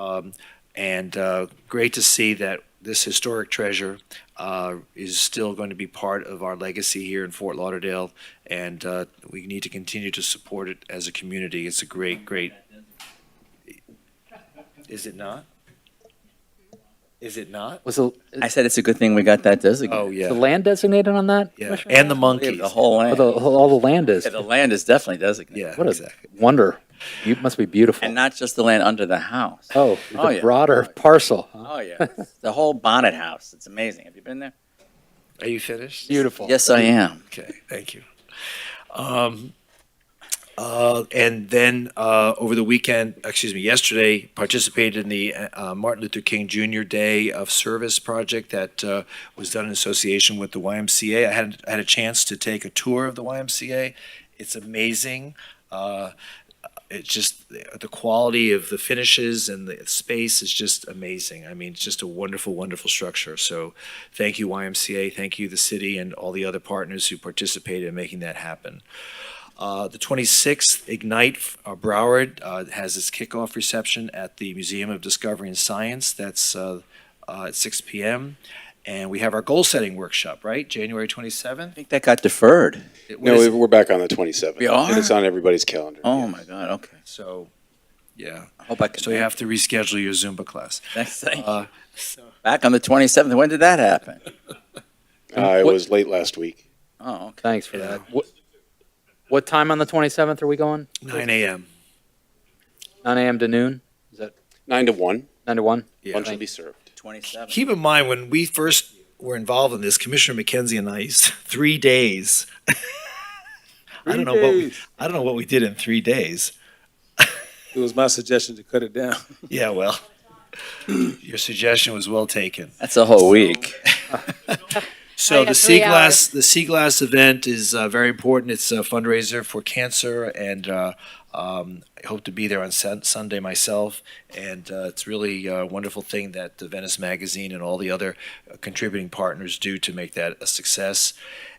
Um, and uh, great to see that this historic treasure uh, is still going to be part of our legacy here in Fort Lauderdale. And uh, we need to continue to support it as a community. It's a great, great. Is it not? Is it not? Was the, I uh, said it's a good thing we got that designated. Oh, is the yeah. land designated on that? Yeah. Commissioner? And the Yeah, monkeys. The whole Oh, land. the- all the land is. Yeah, the land is definitely designated. Yeah, What a exactly. wonder. You must be beautiful. And not just the land under the house. Oh, Oh, the yeah. broader parcel. huh? Oh, yeah. It's the whole bonnet house. It's amazing. Have you been there? Are you finished? Beautiful. Yes, I am. Okay, thank you. Um, uh, and then uh, over the weekend, excuse me, yesterday, participated in the uh, Martin Luther King Jr. Day of Service project that uh, was done in association with the YMCA. I had I had a chance to take a tour of the YMCA. It's amazing. Uh, it's just the quality of the finishes and the space is just amazing. I mean, it's just a wonderful, wonderful structure. So, thank you YMCA, thank you the city and all the other partners who participated in making that happen. Uh, the 26th Ignite uh, Broward uh, has its kickoff reception at the Museum of Discovery and Science. That's uh, uh, at 6 p.m. And we have our goal setting workshop, right? January 27th. I think that got deferred. What No, is it? we're back on the 27th. We are? And it's on everybody's calendar. Oh, my God. Okay. so, yeah. I hope I can. So you have to reschedule your Zumba class. Next thing. Uh, Back on the 27th. When did that happen? Uh, it What- was late last week. Oh, okay. Thanks for Yeah. that. What, what time on the 27th are we going? 9 a.m. 9 a.m. to noon? 9 to 1. 9 to 1? Yeah. Lunch will be served. 27th. Keep in mind, when we first were involved in this, Commissioner McKenzie and I, used three days. I don't know what we, I don't know what we did in three days. It was my suggestion to cut it down. Yeah, well, your suggestion was well taken. That's a whole week. So I the got three Sea Glass, the Sea Glass event is uh, very important. It's a fundraiser for cancer, and uh, um, I hope to be there on Sun- Sunday myself. And uh, it's really a wonderful thing that the Venice Magazine and all the other uh, contributing partners do to make that a success.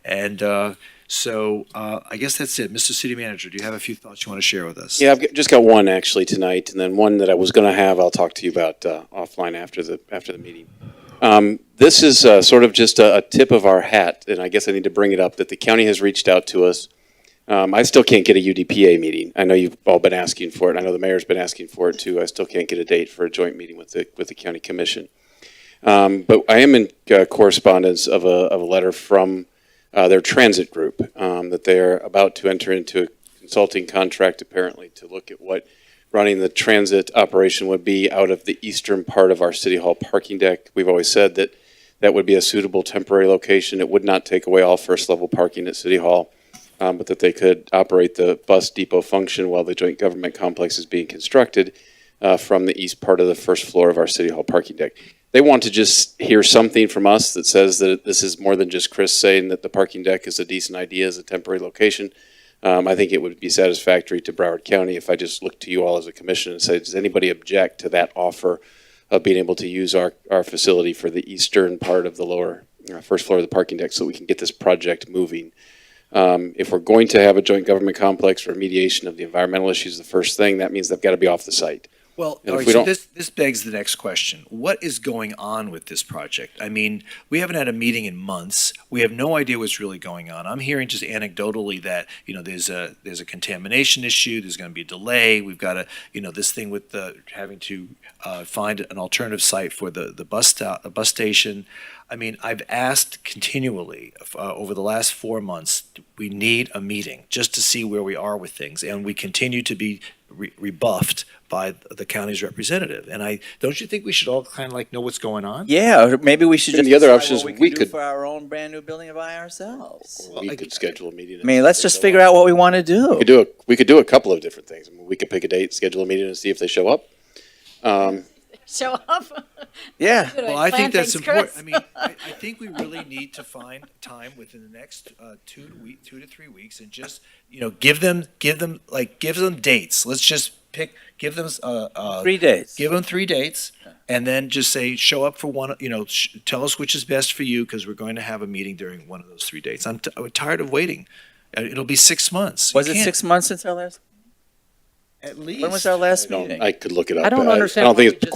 And uh, so uh, I guess that's it, Mr. City Manager. Do you have a few thoughts you want to share with us? Yeah, I've got- just got one actually tonight, and then one that I was going to have. I'll talk to you about uh, offline after the after the meeting. Um, this is uh, sort of just a, a tip of our hat, and I guess I need to bring it up that the county has reached out to us. Um, I still can't get a UDPA meeting. I know you've all been asking for it. and I know the mayor's been asking for it too. I still can't get a date for a joint meeting with the with the county commission. Um, but I am in uh, correspondence of a of a letter from uh, their transit group um, that they're about to enter into a consulting contract apparently to look at what running the transit operation would be out of the eastern part of our city hall parking deck. We've always said that that would be a suitable temporary location. It would not take away all first level parking at city hall, um, but that they could operate the bus depot function while the joint government complex is being constructed uh, from the east part of the first floor of our city hall parking deck. They want to just hear something from us that says that this is more than just Chris saying that the parking deck is a decent idea as a temporary location. Um, I think it would be satisfactory to Broward County if I just looked to you all as a commission and say, does anybody object to that offer of being able to use our, our facility for the eastern part of the lower, uh, first floor of the parking deck so we can get this project moving? Um, if we're going to have a joint government complex for mediation of the environmental issues, the first thing, that means they've got to be off the site. Well, And if all right, we so don't- this, this begs the next question. What is going on with this project? I mean, we haven't had a meeting in months. We have no idea what's really going on. I'm hearing just anecdotally that, you know, there's a, there's a contamination issue, there's going to be a delay. We've got a, you know, this thing with the, having to, uh, find an alternative site for the, the bus stop, the bus station. I mean, I've asked continually, uh, over the last four months, we need a meeting just to see where we are with things. And we continue to be re- rebuffed by the county's representative. And I, don't you think we should all kind of like know what's going on? Yeah, or maybe we should And just. the other decide option what is we we could do could- Oh. For our own brand new building by ourselves. Well, I- We could schedule a meeting. I mean, let's just figure out what we want to We could do. do a, we could do a couple of different things. I mean, we could pick a date, schedule a meeting and see if they show up. Um, show up. Yeah. Well, I think that's important. I mean, I, I think we really need to find time within the next uh, two week, two to three weeks, and just you know, give them, give them, like, give them dates. Let's just pick, give them, uh, uh, Three days. give them three dates, and then just say, show up for one. You know, sh- tell us which is best for you because we're going to have a meeting during one of those three dates. I'm, t- I'm tired of waiting. Uh, It'll be six months. You Was it can't- six months since our last? At least. When was our last I don't- meeting? I could look it up. I don't but understand I don't why think we it's just